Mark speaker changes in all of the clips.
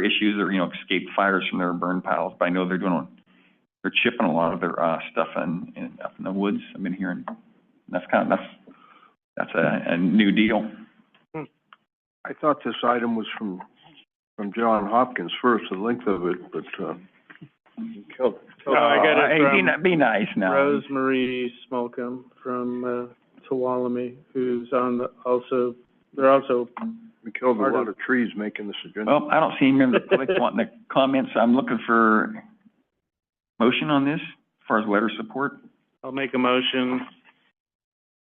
Speaker 1: issues or, you know, escaped fires from their burn piles, but I know they're doing, they're chipping a lot of their, uh, stuff in, in, up in the woods, I've been hearing. That's kind of, that's, that's a, a new deal.
Speaker 2: I thought this item was from, from John Hopkins first, the length of it, but, uh,
Speaker 3: No, Oh, I got
Speaker 1: Hey,
Speaker 3: it
Speaker 1: be
Speaker 3: from
Speaker 1: ni- Be nice now.
Speaker 3: Rosemary Smolcom from, uh, Tuolumne, who's on the, also, they're also,
Speaker 2: we killed a
Speaker 3: Part of-
Speaker 2: lot of trees making this agenda.
Speaker 1: Well, I don't see any member of the public wanting to comment, so I'm looking for motion on this, as far as letter of support.
Speaker 3: I'll make a motion,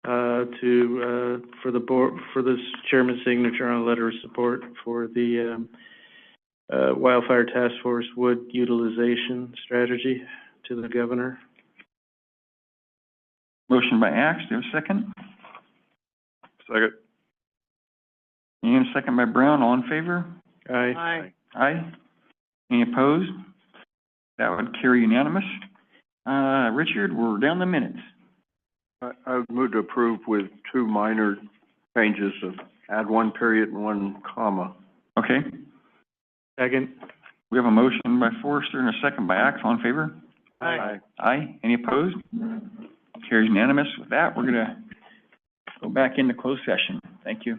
Speaker 3: uh, to, uh, for the board, for this chairman's signature on a letter of support for the, um, uh, wildfire task force wood utilization strategy to the governor.
Speaker 1: Motion by Axe, do you have a second?
Speaker 2: Second.
Speaker 1: And a second by Brown, all in favor?
Speaker 3: Aye.
Speaker 1: Aye. Any opposed? That would carry unanimous. Uh, Richard, we're down the minutes.
Speaker 2: I, I would move to approve with two minor changes of add one period and one comma.
Speaker 1: Okay,
Speaker 3: Second.
Speaker 1: we have a motion by Forrester and a second by Axe, all in favor?
Speaker 3: Aye.
Speaker 1: Aye. Any opposed? Carries unanimous. With that, we're gonna go back into closed session. Thank you.